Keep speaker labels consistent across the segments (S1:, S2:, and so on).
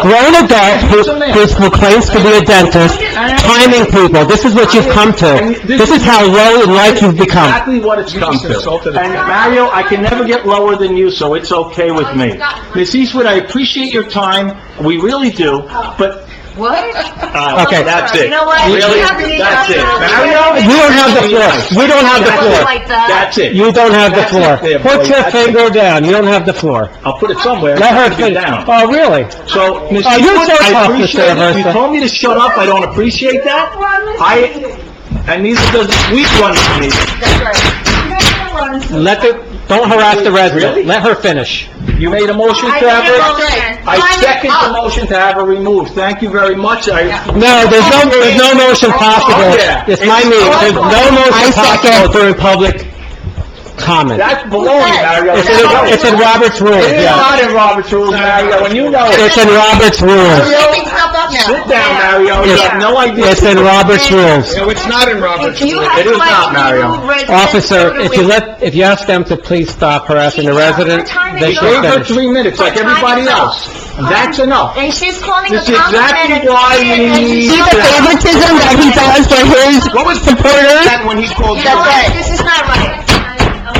S1: grown adult who- who's who claims to be a dentist, timing people. This is what you've come to. This is how low in life you've become.
S2: exactly what it's come
S3: just insulted
S2: to.
S3: us.
S2: And Mario, I can never get lower than you, so it's okay
S4: Oh,
S2: with me. Miss Eastwood, I appreciate your time, we really do, but,
S4: What?
S2: uh,
S1: Okay.
S2: that's it.
S4: Oh. You know what?
S2: Really,
S4: You have to leave
S2: that's it.
S4: after-
S2: Mario?
S1: You don't have the floor. We don't have the floor.
S4: Like that.
S2: That's it.
S1: You don't have the
S2: That's
S1: floor.
S2: it there, boy.
S1: Put your
S2: That's it.
S1: finger down. You don't have the floor.
S2: I'll put it somewhere.
S1: Let her
S2: It's gonna be
S1: finish.
S2: down.
S1: Oh, really?
S2: So, Ms.
S1: Oh, you're
S2: Eastwood,
S1: so
S2: I
S1: tough, Mr.
S2: appreciate it. You
S1: Aversa.
S2: told me to shut up, I don't appreciate that. I, and neither does this weak one to me.
S4: That's right.
S1: Let the, don't harass the
S2: Really?
S1: resident. Let her finish.
S2: You made a motion to
S4: I
S2: have
S4: made a
S2: her...
S4: motion.
S2: I
S4: Time is
S2: second the
S4: up.
S2: motion to have her removed. Thank you very much. I,
S1: No, there's no, there's no motion possible.
S2: Oh, yeah. Oh,
S1: It's my meeting. There's no motion possible during public comment.
S2: that's baloney, Mario.
S1: It's in, it's in Robert's rules,
S2: It is
S1: yeah.
S2: not in Robert's rules, Mario, and you know it.
S1: It's in Robert's rules.
S4: Everything's held up now.
S2: Sit down, Mario, you have no idea.
S1: It's in Robert's rules.
S3: No, it's not in Robert's
S4: If you
S3: rules.
S4: have
S2: It is
S4: like
S2: not,
S4: to
S2: Mario.
S4: remove residents,
S1: Officer,
S4: go to
S1: if you
S4: wait-
S1: let, if you ask them to please stop harassing the resident, they
S2: Gave
S1: should
S2: her
S1: finish.
S2: three minutes like everybody else. And That's enough.
S4: And she's calling a
S2: This is
S4: compliment.
S2: exactly why we need
S4: You know
S2: to-
S4: what?
S1: favoritism that he does for his
S2: What was the
S1: supporters?
S2: that when he called
S4: You know
S2: that?
S4: what? This is not right.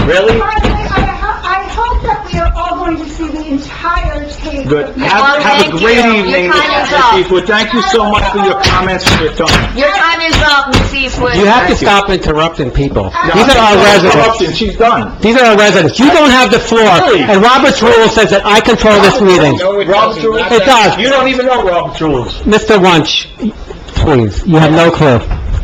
S2: Really?
S5: I ho- I hope that we are all going to see the entire tape.
S2: Good.
S4: Well,
S2: Have, have a
S4: thank
S2: great
S4: you. Your
S2: evening,
S4: time
S2: Ms.
S4: is up.
S2: Eastwood. Thank you so much for your comments and your time.
S4: Your time is up, Ms. Eastwood.
S1: You have to
S2: Thank you.
S1: stop interrupting people.
S2: No,
S1: These are our
S2: no
S1: residents.
S2: corruption. She's done.
S1: These are our residents. You don't have the floor,
S2: Really?
S1: and Robert's rule says that I control this meeting.
S3: No, it
S2: Robert's
S3: doesn't.
S2: rules.
S3: Not
S1: It
S3: that-
S1: does.
S2: You don't even know Robert's rules.
S1: Mr. Wunsch, please, you have no clue.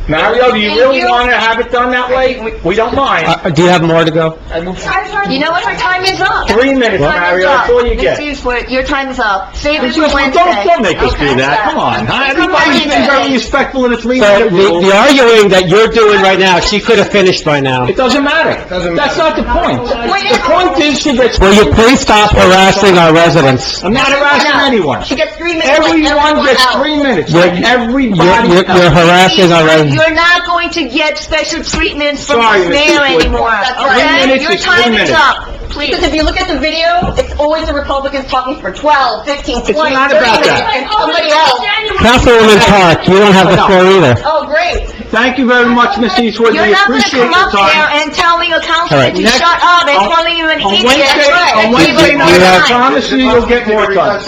S2: Mario, do you
S4: Thank
S2: really
S4: you.
S2: want to have it done that way? We- We don't mind.
S1: Uh, Do you have more to go?
S3: I moved
S4: You know what? Your time is up.
S2: Three minutes,
S4: Your time is
S2: Mario. That's
S4: up.
S2: all you get.
S4: Ms. Eastwood, your time is up. Save it for
S2: Just-
S4: Wednesday.
S2: Don't, don't make us do
S4: Okay?
S2: that. Come on. huh? Everybody's been very respectful in the three
S1: So
S2: minute
S1: the the
S2: rule.
S1: arguing that you're doing right now, she could have finished by now.
S2: It doesn't matter.
S3: Doesn't
S2: That's not the point.
S4: Wait.
S2: The point is she gets...
S1: Will you please stop harassing our residents?
S2: I'm not harassing
S4: No.
S2: anyone.
S4: She gets three minutes. like
S2: Everyone gets
S4: else.
S2: three minutes.
S1: You're-
S2: like
S1: You're
S2: Everybody
S1: you're- you're
S2: else.
S1: harassing our residents.
S4: You're not going to get special treatments from
S2: Sorry,
S4: the
S2: Ms.
S4: mayor
S2: Eastwood.
S4: anymore,
S2: Three
S4: okay?
S2: minutes
S4: Your
S2: is three
S4: time is
S2: minutes.
S4: up, please.
S6: Because if you look at the video, it's always the Republicans talking for 12, 15, 20, 30 minutes.
S2: not about that.
S6: And somebody else,
S1: Councilwoman Park, you don't have the floor either.
S6: oh, great.
S2: Thank you very much, Ms. Eastwood.
S4: You're
S2: We
S4: not gonna
S2: appreciate
S4: come
S2: your
S4: up there
S2: time.
S4: and tell me, a councilman,
S1: right.
S4: to
S2: Next-
S4: shut up and
S2: on-
S4: calling you an
S2: On
S4: idiot.
S2: Wednesday,
S4: That's right.
S2: on Wednesday
S4: Everybody
S2: night, I
S4: knows.
S2: promise you, you'll get more time.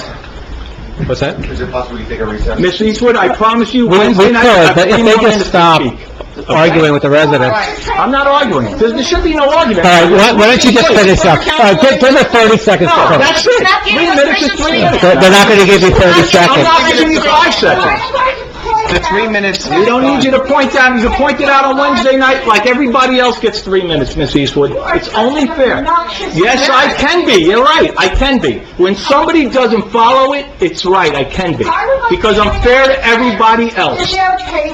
S1: What's that?
S3: Is it possible we take a recess?
S2: Ms. Eastwood, I promise you,
S1: We we
S2: Wednesday
S1: could,
S2: night, I have
S1: but
S2: three
S1: if
S2: more
S1: they
S2: minutes
S1: just
S2: to
S1: stop
S2: speak.
S1: arguing with the residents.
S2: I'm not arguing. There there should be no argument.
S1: All right, why why don't you just finish up? All right, give give her 30 seconds to
S2: No,
S1: finish.
S2: that's it.
S4: Not giving
S2: Three
S4: us
S2: minutes is
S4: permission
S2: three
S4: to
S2: minutes.
S1: They're they're not going to give you 30
S2: I'm
S1: seconds.
S2: not giving you five seconds.
S3: The three minutes.
S2: We don't need you to point out, you point it out on Wednesday night like everybody else gets three minutes, Miss Eastwood. It's only fair. Yes, I can be, you're right, I can be. When somebody doesn't follow it, it's right, I can be. Because I'm fair to everybody else.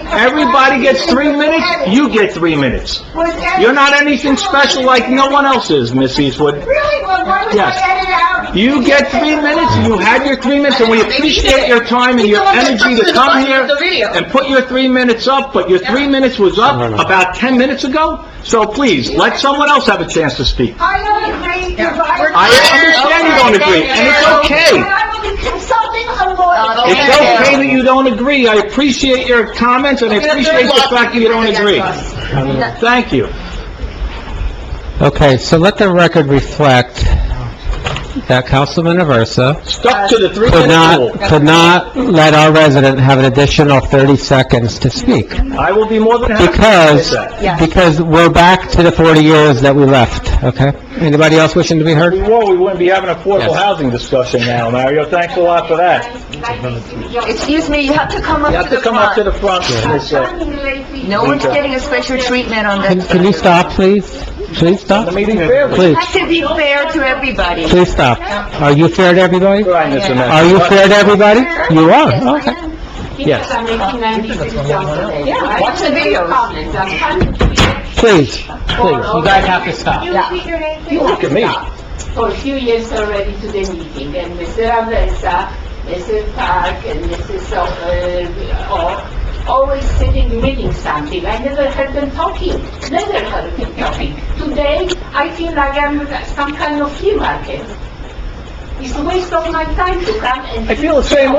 S2: Everybody gets three minutes, you get three minutes. You're not anything special like no one else is, Miss Eastwood.
S5: Really? Well, why was I
S2: Yes.
S5: edited out?
S2: You get three minutes, you had your three minutes, and we appreciate your time and your energy to come here and put your three minutes up, but your three minutes was up
S1: No, no, no.
S2: about 10 minutes ago, so please, let someone else have a chance to speak.
S5: I don't agree with
S2: I understand you don't agree, and it's
S5: And
S2: okay.
S5: I will be consulting a lawyer.
S2: It's okay that you don't agree, I appreciate your comments, and I appreciate the fact that you don't agree. Thank you.
S1: Okay, so let the record reflect that Councilman Aversa
S2: Stuck to the
S1: could
S2: three-minute
S1: not,
S2: rule.
S1: could not let our resident have an additional 30 seconds to speak,
S2: I will be more than happy to
S1: because,
S2: do that.
S1: because we're back to the 40 years that we left, okay? Anybody else wishing to be heard?
S2: Well, we wouldn't be having affordable
S1: Yes.
S2: housing discussion now, Mario, thanks a lot for that.
S4: Excuse me, you have to come up
S2: You
S4: to
S2: have to
S4: the
S2: come up to
S4: front.
S2: the front, Ms. Uh,
S4: No one's getting a special treatment on
S1: Can
S4: this.
S1: can you stop, please? Please stop?
S2: The meeting fairly.
S1: Please,
S4: Have to be fair to everybody.
S1: please stop. Are you fair to everybody?
S2: Right, Mr. Mayor.
S1: Are you fair to everybody? You are, okay. Yes.
S4: Watch the videos.
S1: Please, please, you guys have to stop.
S2: Look at me.
S7: for a few years already to the meeting, and Mr. Aversa, Mrs. Park, and Mrs. O- uh, O, always sitting reading something. I never heard them talking, never heard them talking. Today, I feel like I'm some kind of flea market. It's a waste of my time to come and...
S2: I feel the same